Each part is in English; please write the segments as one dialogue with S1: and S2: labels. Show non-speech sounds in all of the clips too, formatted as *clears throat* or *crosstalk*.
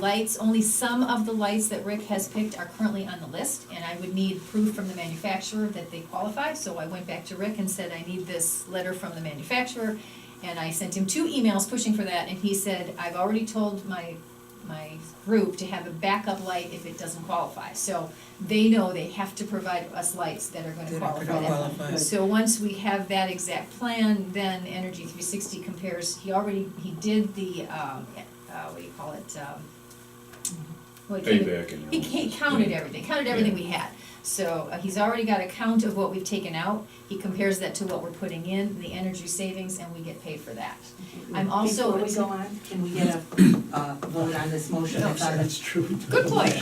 S1: lights, only some of the lights that Rick has picked are currently on the list, and I would need proof from the manufacturer that they qualify, so I went back to Rick and said, I need this letter from the manufacturer, and I sent him two emails pushing for that, and he said, I've already told my, my group to have a backup light if it doesn't qualify, so they know they have to provide us lights that are gonna
S2: That are
S1: qualify
S2: gonna
S1: that.
S2: qualify.
S1: So once we have that exact plan, then Energy three sixty compares, he already, he did the, um, uh, what do you call it, um, what can you-
S3: Payback and.
S1: he ca- counted everything, counted everything we had. So uh, he's already got a count of what we've taken out, he compares that to what we're putting in, the energy savings, and we get paid for that. I'm also-
S4: Before we go on, *coughs* can we get a, uh vote on this motion that's on the,
S2: That's true.
S1: Good
S5: *laughs*
S1: point.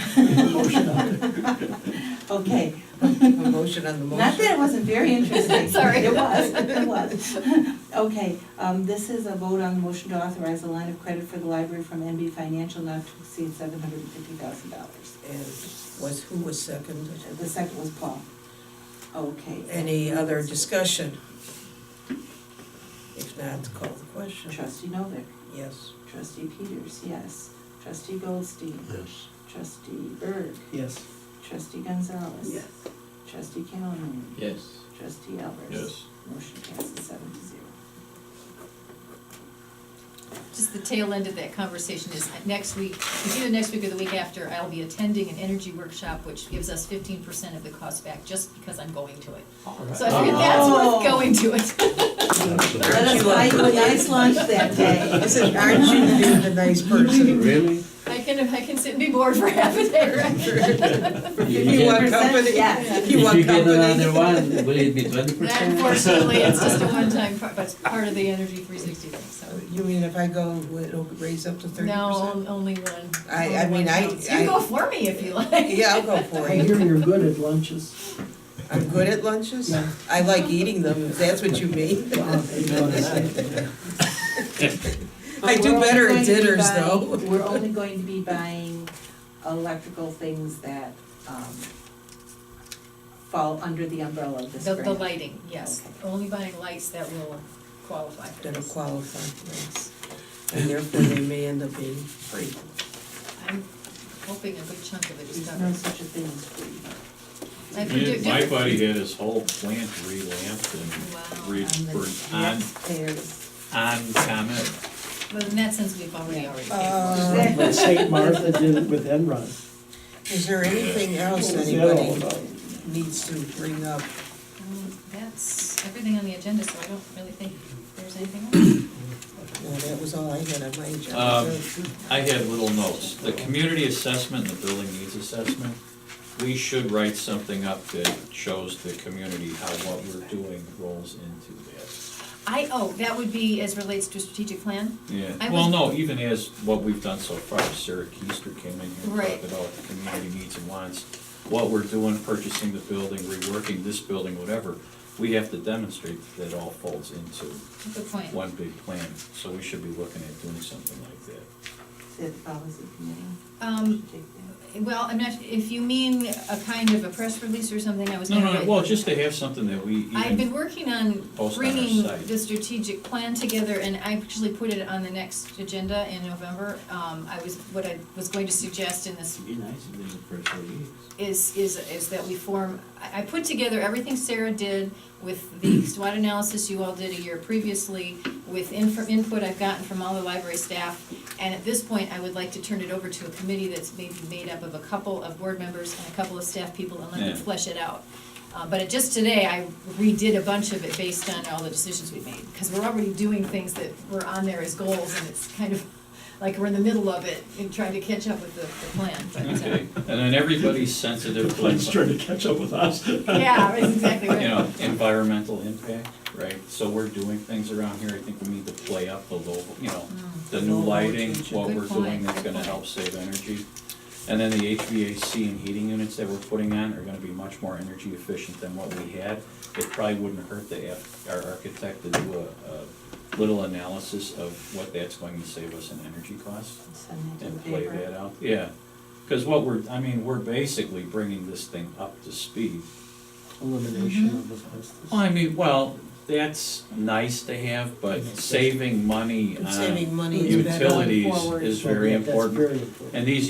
S2: Motion on it.
S4: okay,
S2: A motion on the motion.
S4: not that it wasn't very
S2: *laughs*
S4: interesting.
S1: Sorry.
S4: It was, it was. Okay, um, this is a vote on the motion to authorize a line of credit for the library from NB Financial not to exceed seven hundred and fifty thousand dollars.
S2: And Was, who was second?
S4: The second was Paul. Okay.
S2: Any other discussion? If not, call the question.
S4: Trustee Novick,
S2: Yes.
S4: trustee Peters, yes. Trustee Goldstein,
S6: Yes.
S4: trustee Berg,
S7: Yes.
S4: trustee Gonzalez. Trustee Calhoun.
S7: Yes.
S4: Trustee Elbers.
S3: Yes.
S4: Motion passes seven to zero.
S1: Just the tail end of that conversation is next week, it's either next week or the week after, I'll be attending an energy workshop, which gives us fifteen percent of the cost back, just because I'm going to it. So I figured that's
S2: Oh.
S1: worth going to it. *laughs*
S4: Let us buy you a nice lunch that day.
S2: I said, aren't you
S4: *laughs*
S2: being a nice person?
S6: Really?
S1: I can, I can sit and be bored for half a day, *laughs* right?
S2: If you want
S4: Percent,
S2: company,
S4: yes.
S2: if you want
S7: Uh, If you get another
S2: company.
S7: one,
S1: *laughs*
S7: will it be twenty
S1: That
S7: percent?
S1: unfortunately, it's just a one-time, part- but it's part of the Energy three sixty thing, so.
S2: *laughs* You mean if I go, it'll raise up to thirty
S1: No, on-
S2: percent?
S1: only one.
S2: I-
S1: only
S2: I
S1: one
S2: mean, I-
S1: counts. You can
S2: I-
S1: go for me if you like.
S2: Yeah, I'll go for
S5: I
S2: it.
S5: hear you're good at lunches.
S2: I'm good at lunches.
S5: Yeah.
S2: I like eating them, if that's what you
S5: *laughs*
S2: mean.
S5: Wow, you know what I said.
S2: I
S4: But
S2: do
S4: we're only
S2: better
S4: going
S2: at
S4: to be
S2: dinners
S4: buying-
S2: though.
S4: We're only going to be buying electrical things that, um, fall under the umbrella of this
S1: The,
S4: grant.
S1: the lighting, yes,
S4: Okay.
S1: only buying lights that will qualify for
S2: That'll
S1: this.
S2: qualify, yes. And therefore they may end up being free.
S1: I'm hoping a good chunk of it is
S4: There's no
S1: covered.
S4: such a thing as free.
S1: I think
S3: Yeah,
S1: do-
S3: My
S1: do-
S3: buddy had his whole plant relamped
S1: Wow.
S3: and re,
S4: On Um, the
S3: for- on,
S4: taxpayers.
S3: on comment.
S1: Well, in that sense, we've already, already paid
S2: Uh,
S5: When St. Martha did it with Enron.
S2: Is there anything else
S5: What was that all
S2: anybody
S5: about?
S2: needs to bring up?
S1: for it. Um, That's everything on the agenda, so I don't really think there's anything
S2: Well, that was all I had on my
S3: Um,
S2: agenda. so-
S3: I had little notes. The community assessment, the building needs assessment, we should write something up that shows the community how what we're doing rolls into that.
S1: else. I, oh, that would be as relates to strategic plan? I
S3: Yeah, well,
S1: was-
S3: no, even as what we've done so far, Sarah Keister came in here
S1: Right.
S3: and talked about what the community needs and wants, what we're doing, purchasing the building, reworking this building, whatever. We have to demonstrate that it all folds into
S1: Good point.
S3: one big plan, so we should be looking at doing something like that.
S4: It follows the committee.
S1: Um,
S4: Take that.
S1: well, I'm not, if you mean a kind of a press release or something, I was
S3: No,
S1: gonna
S3: no,
S1: write-
S3: well, just to have something that we even.
S1: I've been working on
S3: Post on our
S1: bringing
S3: site.
S1: the strategic plan together, and I actually put it on the next agenda in November. Um, I was, what I was going to suggest in this
S7: It'd be nice if there's a press release.
S1: is, is, is that we form, I, I put together everything Sarah did with
S3: *clears throat*
S1: the SWOT analysis you all did a year previously, with inf- input I've gotten from all the library staff. And at this point, I would like to turn it over to a committee that's maybe made up of a couple of board members and a couple of staff people and let them
S3: Yeah.
S1: flesh it out. Uh, but it- just today, I redid a bunch of it based on all the decisions we made, because we're already doing things that were on there as goals, and it's kind of *laughs* like we're in the middle of it and trying to catch up with the, the plan, but, uh,
S3: Okay, and then everybody's
S1: *laughs*
S3: sensitive to,
S5: Plane's trying to catch up with us.
S1: Yeah, that's exactly
S3: you
S1: right.
S3: know, environmental impact, right? So we're doing things around here, I think we need to play up the local, you know, the new
S2: Low
S3: lighting,
S2: voltage.
S3: what
S1: Good
S3: we're
S1: point,
S3: doing that's
S1: good
S3: gonna
S1: point.
S3: help save energy. And then the HVAC and heating units that we're putting on are gonna be much more energy efficient than what we had. It probably wouldn't hurt the, arch- our architect to do a, a little analysis of what that's going to save us in energy costs.
S4: Send that to the
S3: and play
S4: paper.
S3: that out, yeah. Because what we're, I mean, we're basically bringing this thing up to speed.
S5: Elimination of asbestos.
S3: Well, I mean, well, that's nice to have, but saving money
S2: Saving
S3: on
S2: money is better.
S3: utilities
S2: Forward.
S3: is very
S5: That's
S3: important.
S5: very important.
S3: And these